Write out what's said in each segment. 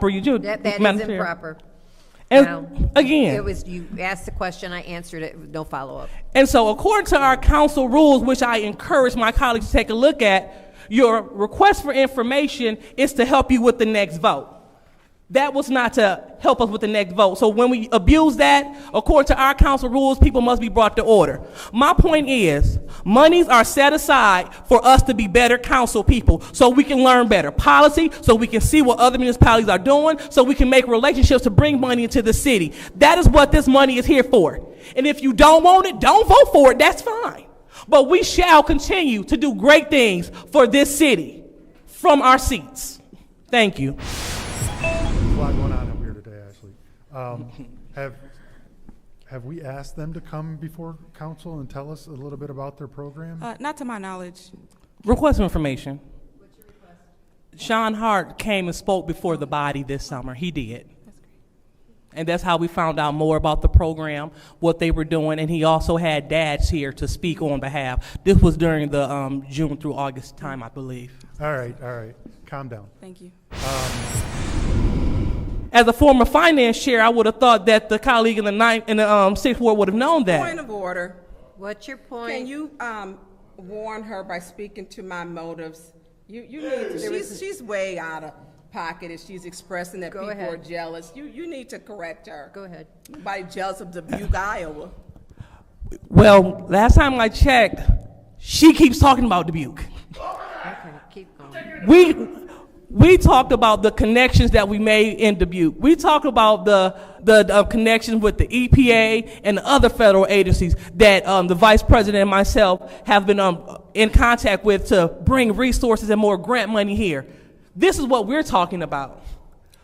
for you do. That, that Madam is Chair. improper. And Now, It again, was, you asked the question, I answered it, no follow-up. and so according to our council rules, which I encourage my colleagues to take a look at, your request for information is to help you with the next vote. That was not to help us with the next vote. So when we abuse that, according to our council rules, people must be brought to order. My point is, monies are set aside for us to be better council people, so we can learn better policy, so we can see what other municipalities are doing, so we can make relationships to bring money into the city. That is what this money is here for. And if you don't want it, don't vote for it, that's fine. But we shall continue to do great things for this city from our seats. Thank you. a lot going on up here today, actually. Um, Have, have we asked them to come before council and tell us a little bit about their program? Uh, not to my knowledge. Request for information. Sean Hart came and spoke before the body this summer. He did. And that's how we found out more about the program, what they were doing, and he also had dads here to speak on behalf. This was during the um, June through August time, I believe. All right, all right, calm down. Thank you. As a former finance chair, I would have thought that the colleague in the ninth, in the um, sixth ward would have known Point that. of order. What's your point? Can you um, warn her by speaking to my motives? You, you need, to- she's, she's way out of pocket and she's expressing that Go people ahead. are jealous. You, you need to correct her. Go ahead. Nobody jealous of Dubuque, Iowa. Well, last time I checked, she keeps talking about Dubuque. Okay, keep going. we we talked about the connections that we made in Dubuque. We talked about the the uh, connections with the EPA and other federal agencies that um, the vice president and myself have been um, in contact with to bring resources and more grant money here. This is what we're talking about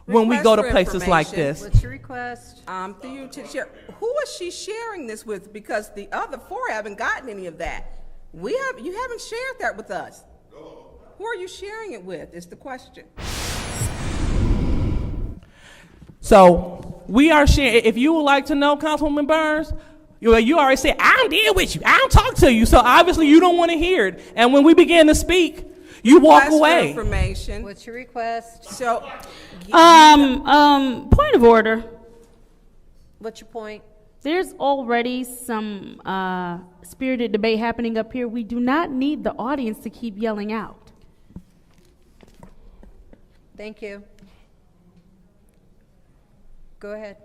when we go Request to for places like information. this. What's your request? Um, for you to share, who is she sharing this with? Because the other four haven't gotten any of that. We have, you haven't shared that with us. Who are you sharing it with, is the question. So we are sharing. If you would like to know, Councilwoman Burns, you, you already said I don't deal with you. I don't talk to you. So obviously you don't want to hear it. And when we begin to speak, you walk Request for away. Information, What's your request? so. Um, um, point of order. What's your point? There's already some uh, spirited debate happening up here. We do not need the audience to keep yelling out. Thank you. Go ahead.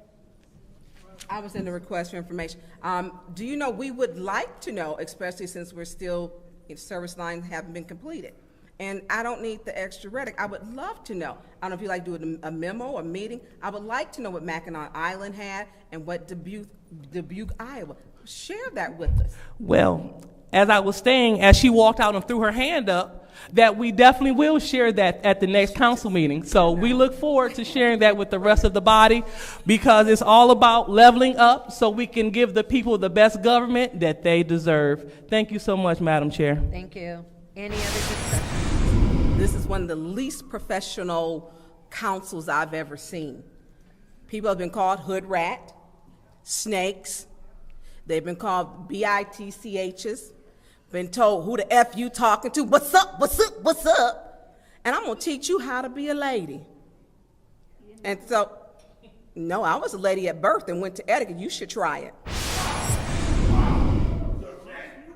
I was in the request for information. Um, do you know, we would like to know, especially since we're still, if service lines haven't been completed. And I don't need the extra rhetoric. I would love to know. I don't know if you like to do a a memo, a meeting. I would like to know what Mackinac Island had and what Dubuque, Dubuque, Iowa. Share that with us. Well, as I was saying, as she walked out and threw her hand up, that we definitely will share that at the next council meeting. So we look forward to sharing that with the rest of the body because it's all about leveling up so we can give the people the best government that they deserve. Thank you so much, Madam Chair. Thank you. Any other discussion? This is one of the least professional councils I've ever seen. People have been called hood rat, snakes. They've been called B-I-T-C-H's. Been told who the F you talking to, what's up, what's up, what's up? And I'm gonna teach you how to be a lady. And so, no, I was a lady at birth and went to etiquette. You should try it.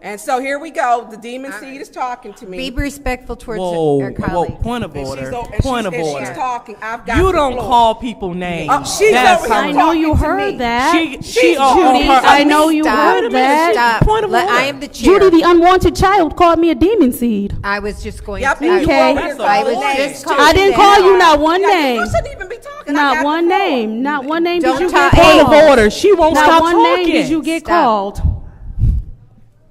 And so here we go. The demon seed is talking to me. Be respectful towards Whoa, our whoa, colleagues. point of And she's order, o- and point she's- of and she's order. talking. I've got You the don't floor. call people names. Oh, she's That's over here how- I know you talking to me. heard that. She, she on- on Judy, her- I know you Stop. heard Wait a minute, that. Stop. Point of Let- I order. am the chair. Judy, the unwanted child, called me a demon seed. I was just going Yep, to. and you Okay. over here That's a I was calling just names, too. calling I didn't them call you out. not one Yeah, name. You shouldn't even be talking. I got Not the one floor. name. Not one name Don't did you talk- get Hey, called. Point of order, she won't Not stop one name did you talking. get Stop. called.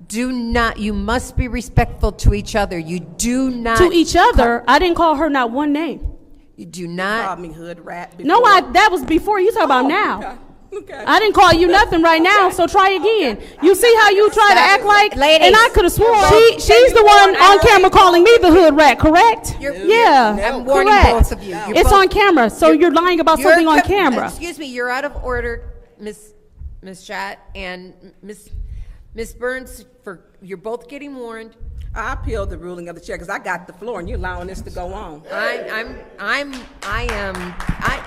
Do not, you must be respectful to each other. You do not. To each other, I didn't call her not one name. You do Called not. me hood rat. No, before. I, that was before. You talk Oh, about now. Okay. I didn't call you nothing right now, so try again. You see how you try to Stop. act like, Ladies. and I could have sworn You're she, both- she's the You're one both- on camera calling me the hood rat, correct? You're- yeah, I'm warning correct. both of you. You're It's both- on camera, so Oh, you're, lying about You're something on co- camera. Excuse me, you're out of order, Miss Miss Schott and Miss Ms. Burns, for, you're both getting warned. I appealed the ruling of the chair because I got the floor and you're allowing this to go on. I, I'm, I'm, I am, I,